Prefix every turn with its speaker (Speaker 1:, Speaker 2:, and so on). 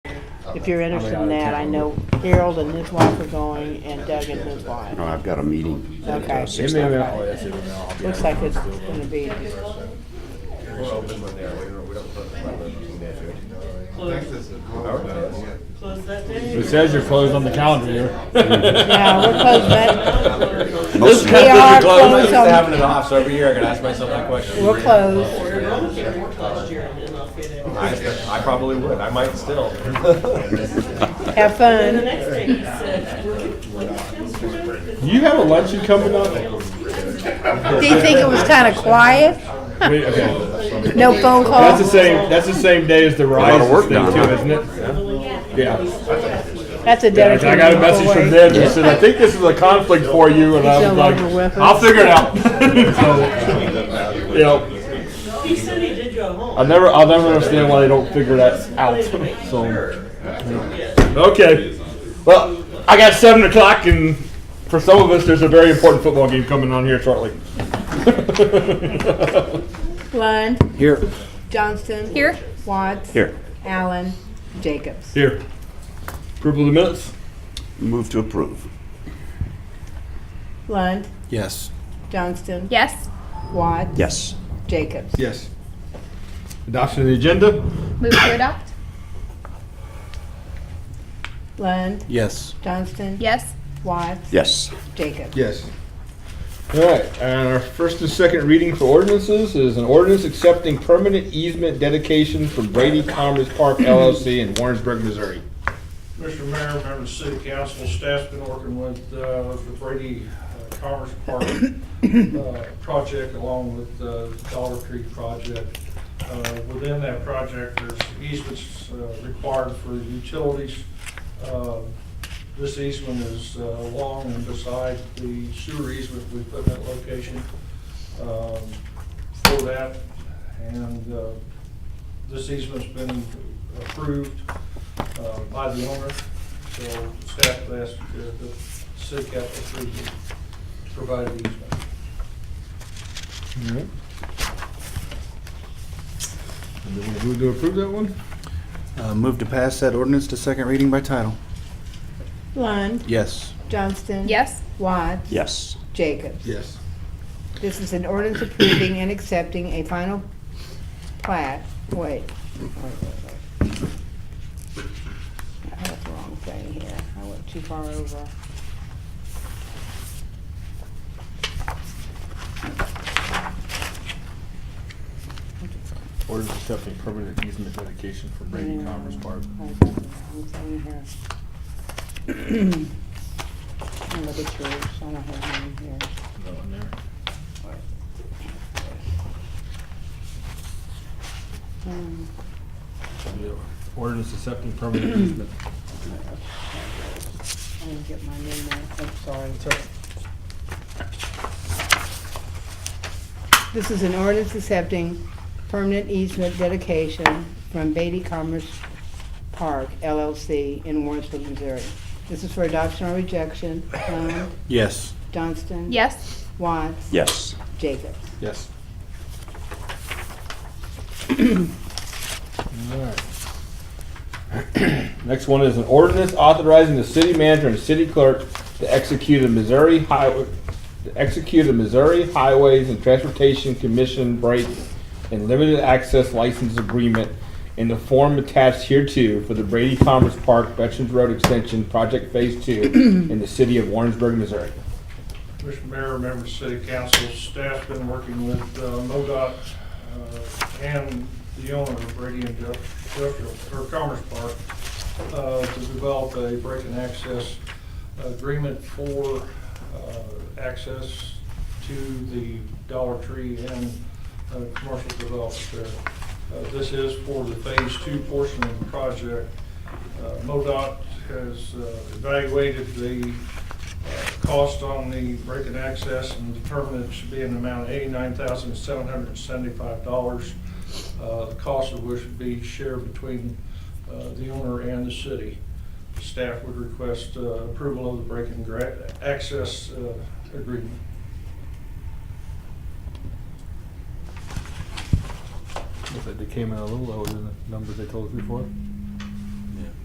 Speaker 1: If you're interested in that, I know Harold and his wife are going and Doug and his wife.
Speaker 2: No, Oh, I've got a meeting. at, uh,
Speaker 1: Okay.
Speaker 2: six
Speaker 1: Maybe-
Speaker 2: o'clock.
Speaker 3: oh, that's it, I'll be
Speaker 1: Looks
Speaker 3: out.
Speaker 1: like it's gonna be,
Speaker 3: We're open when they're- we don't- we don't put- we're looking there, right?
Speaker 4: It says you're closed on the calendar here.
Speaker 1: yeah, we're closed, but
Speaker 2: Most
Speaker 1: We
Speaker 2: of-
Speaker 1: are
Speaker 3: Well, I'm not
Speaker 1: closed
Speaker 3: used to
Speaker 1: on,
Speaker 3: having it off, so every year I gotta ask myself that question.
Speaker 1: we're closed.
Speaker 3: I, I probably would, I might still.
Speaker 1: Have fun.
Speaker 4: You have a luncheon coming up?
Speaker 1: Do you think it was kinda quiet?
Speaker 4: Wait, okay.
Speaker 1: No phone
Speaker 4: That's the
Speaker 1: calls?
Speaker 4: same, that's the same day as the
Speaker 2: lot of
Speaker 4: Rise
Speaker 2: work
Speaker 4: thing
Speaker 2: done,
Speaker 4: too,
Speaker 2: huh?
Speaker 4: isn't it? Yeah.
Speaker 1: That's a
Speaker 4: Yeah, I
Speaker 1: dedicated
Speaker 4: got a message from
Speaker 1: employee.
Speaker 4: them, they said, I think this is a conflict for you, and I
Speaker 1: He's
Speaker 4: was
Speaker 1: no
Speaker 4: like,
Speaker 1: longer with us.
Speaker 4: I'll figure it out. So, You know,
Speaker 5: He said he did go home.
Speaker 4: I never, I'll never understand why they don't figure that out, so. Okay. Well, I got seven o'clock, and for some of us, there's a very important football game coming on here shortly.
Speaker 1: Lund,
Speaker 2: Here.
Speaker 1: Johnston. Here. Watts.
Speaker 2: Here.
Speaker 1: Allen, Jacobs.
Speaker 4: Here. Approval of the minutes?
Speaker 2: Move to approve.
Speaker 1: Lund,
Speaker 6: Yes.
Speaker 1: Johnston.
Speaker 7: Yes.
Speaker 1: Watts.
Speaker 2: Yes.
Speaker 1: Jacobs.
Speaker 4: Yes. Adoption of the agenda?
Speaker 7: Move to adopt?
Speaker 1: Lund,
Speaker 6: Yes.
Speaker 1: Johnston.
Speaker 7: Yes.
Speaker 1: Watts.
Speaker 2: Yes.
Speaker 1: Jacobs.
Speaker 4: Yes. All right, and our first and second reading for ordinances is an ordinance accepting permanent easement dedication from Brady Commerce Park LLC in Warrensburg, Missouri.
Speaker 8: Mr. Mayor, members of the city council, staff's been working with, uh, with the Brady uh, Commerce Park, uh, project along with the Dollar Tree project. Uh, within that project, there's easements, uh, required for utilities. Uh, this easement is, uh, along and beside the sewer easement we put in that location, um, for that. And, uh, this easement's been approved, uh, by the owner, so staff has asked uh, the city council approve the provided easement.
Speaker 4: Who to approve that one?
Speaker 6: Uh, Move to pass that ordinance to second reading by title.
Speaker 1: Lund,
Speaker 6: Yes.
Speaker 1: Johnston.
Speaker 7: Yes.
Speaker 1: Watts.
Speaker 2: Yes.
Speaker 1: Jacobs.
Speaker 4: Yes.
Speaker 1: This is an ordinance approving and accepting a final plat, wait. wait, wait, wait. I have the wrong thing here, I went too far over.
Speaker 4: Ordinance accepting permanent easement dedication from Brady Commerce Park.
Speaker 1: I got the wrong thing here. I'm gonna look at yours, I don't have mine here.
Speaker 4: No one there.
Speaker 1: Um,
Speaker 4: Yeah. Ordinance accepting permanent easement.
Speaker 1: I didn't get my name out, I'm sorry. This is an ordinance accepting permanent easement dedication from Beatty Commerce Park LLC in Warrensburg, Missouri. This is for adoption or rejection. Lund,
Speaker 6: Yes.
Speaker 1: Johnston.
Speaker 7: Yes.
Speaker 1: Watts.
Speaker 2: Yes.
Speaker 1: Jacobs.
Speaker 4: Yes. Alright. Next one is an ordinance authorizing the city manager and city clerk to execute a Missouri highway, to execute a Missouri Highways and Transportation Commission break and limited access license agreement in the form attached hereto for the Brady Commerce Park Veterans Road Extension Project Phase Two in the city of Warrensburg, Missouri.
Speaker 8: Mr. Mayor, members of city council, staff's been working with uh, MoDOT uh, and the owner of Brady Industrial, or Commerce Park, uh, to develop a break and access agreement for uh, access to the Dollar Tree and uh, commercial development there. Uh, This is for the phase two portion of the project. Uh, MoDOT has uh, evaluated the uh, cost on the break and access and determined it should be in the amount of eighty-nine thousand, seven hundred and seventy-five dollars. Uh, The cost of which would be shared between uh, the owner and the city. Staff would request uh, approval of the break and gra- access uh, agreement.
Speaker 4: Looks like they came in a little lower than the numbers they told us before.